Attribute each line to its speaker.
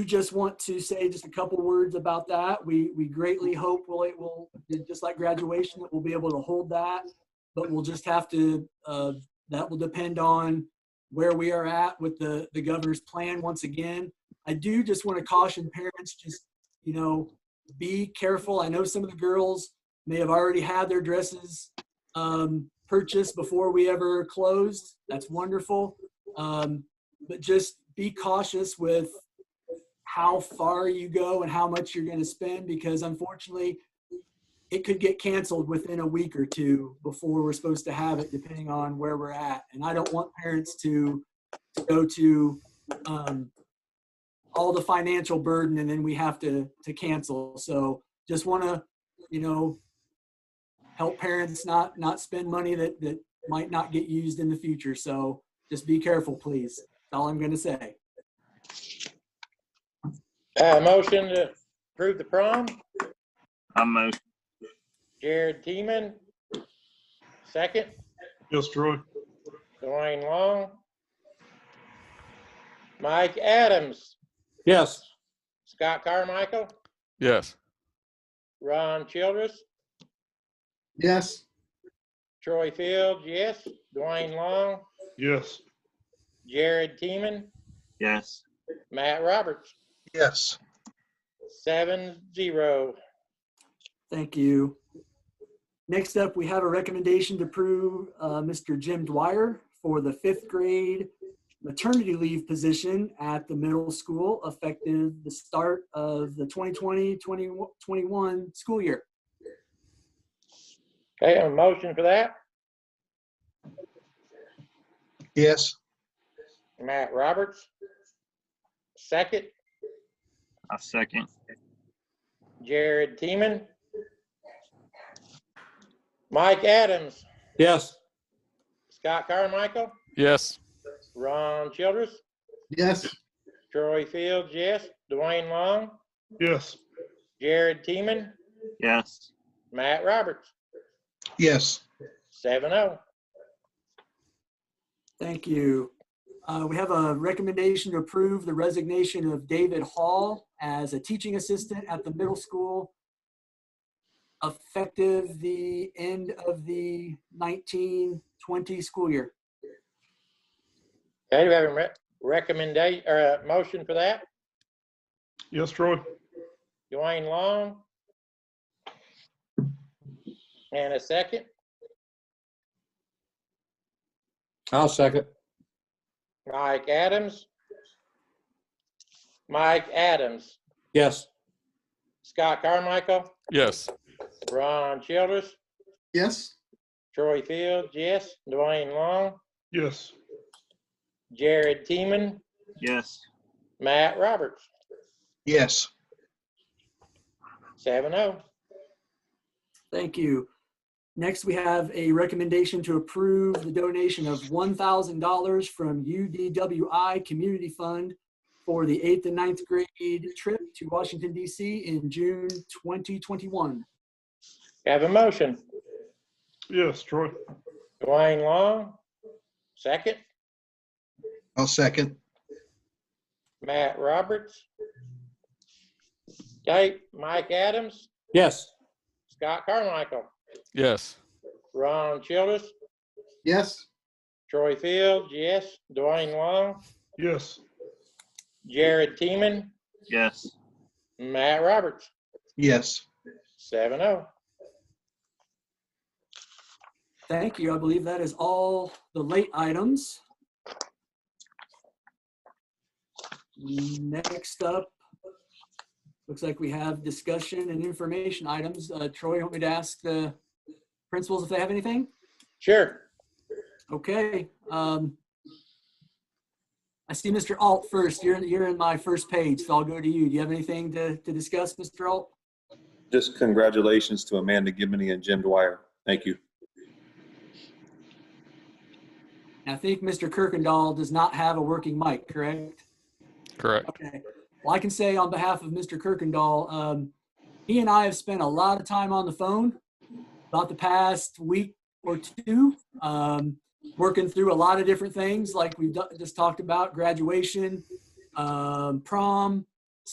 Speaker 1: you just want to say just a couple words about that, we, we greatly hope we'll, it will, just like graduation, that we'll be able to hold that. But we'll just have to, uh, that will depend on where we are at with the, the governor's plan once again. I do just want to caution parents, just, you know, be careful. I know some of the girls may have already had their dresses um, purchased before we ever closed. That's wonderful. Um, but just be cautious with how far you go and how much you're going to spend because unfortunately it could get canceled within a week or two before we're supposed to have it depending on where we're at and i don't want parents to, to go to um, all the financial burden and then we have to to cancel so just want to you know help parents not not spend money that that might not get used in the future so just be careful please that's all i'm going to say
Speaker 2: Uh, motion to approve the prom,
Speaker 3: I'm motion.
Speaker 2: Jared Teeman. Second,
Speaker 4: Yes, Troy.
Speaker 2: Dwayne Long. Mike Adams,
Speaker 4: Yes.
Speaker 2: Scott Carmichael,
Speaker 5: Yes.
Speaker 2: Ron Childress,
Speaker 6: Yes.
Speaker 2: Troy Fields, yes, Dwayne Long,
Speaker 4: Yes.
Speaker 2: Jared Teeman,
Speaker 3: Yes.
Speaker 2: Matt Roberts,
Speaker 6: Yes.
Speaker 2: seven zero.
Speaker 1: Thank you. Next up, we have a recommendation to approve uh, Mr. Jim Dwyer for the fifth grade maternity leave position at the middle school effective the start of the 2020-2021 school year.
Speaker 2: Okay, a motion for that,
Speaker 6: Yes.
Speaker 2: Matt Roberts. Second,
Speaker 3: I second.
Speaker 2: Jared Teeman. Mike Adams,
Speaker 4: Yes.
Speaker 2: Scott Carmichael,
Speaker 5: Yes.
Speaker 2: Ron Childress,
Speaker 6: Yes.
Speaker 2: Troy Fields, yes, Dwayne Long,
Speaker 4: Yes.
Speaker 2: Jared Teeman,
Speaker 3: Yes.
Speaker 2: Matt Roberts,
Speaker 6: Yes.
Speaker 2: seven oh.
Speaker 1: Thank you. Uh, We have a recommendation to approve the resignation of David Hall as a teaching assistant at the middle school effective the end of the 19-20 school year.
Speaker 2: Okay, do we have a re- recommendation, or a motion for that?
Speaker 4: Yes, Troy.
Speaker 2: Dwayne Long. And a second,
Speaker 4: I'll second.
Speaker 2: Mike Adams. Mike Adams,
Speaker 4: Yes.
Speaker 2: Scott Carmichael,
Speaker 5: Yes.
Speaker 2: Ron Childress,
Speaker 6: Yes.
Speaker 2: Troy Fields, yes, Dwayne Long,
Speaker 4: Yes.
Speaker 2: Jared Teeman,
Speaker 3: Yes.
Speaker 2: Matt Roberts,
Speaker 6: Yes.
Speaker 2: seven oh.
Speaker 1: Thank you. Next, we have a recommendation to approve the donation of $1,000 from UDWI Community Fund for the eighth and ninth grade trip to Washington DC in June 2021.
Speaker 2: Have a motion.
Speaker 4: Yes, Troy.
Speaker 2: Dwayne Long, second.
Speaker 6: I'll second.
Speaker 2: Matt Roberts. Okay, Mike Adams,
Speaker 4: Yes.
Speaker 2: Scott Carmichael,
Speaker 5: Yes.
Speaker 2: Ron Childress,
Speaker 6: Yes.
Speaker 2: Troy Fields, yes, Dwayne Long,
Speaker 4: Yes.
Speaker 2: Jared Teeman,
Speaker 3: Yes.
Speaker 2: Matt Roberts,
Speaker 6: Yes.
Speaker 2: seven oh.
Speaker 1: Thank you. I believe that is all the late items. Next up, looks like we have discussion and information items. Uh, Troy, you want me to ask the principals if they have anything?
Speaker 2: Sure.
Speaker 1: Okay. um, I see Mr. Alt first. You're, you're in my first page, so I'll go to you. Do you have anything to, to discuss, Mr. Alt?
Speaker 7: Just congratulations to Amanda Gibney and Jim Dwyer. Thank you.
Speaker 1: And I think Mr. Kirkendall does not have a working mic, correct?
Speaker 5: Correct.
Speaker 1: Okay. Well, I can say on behalf of Mr. Kirkendall, um, he and I have spent a lot of time on the phone about the past week or two, um, working through a lot of different things like we've do- just talked about graduation, um, prom,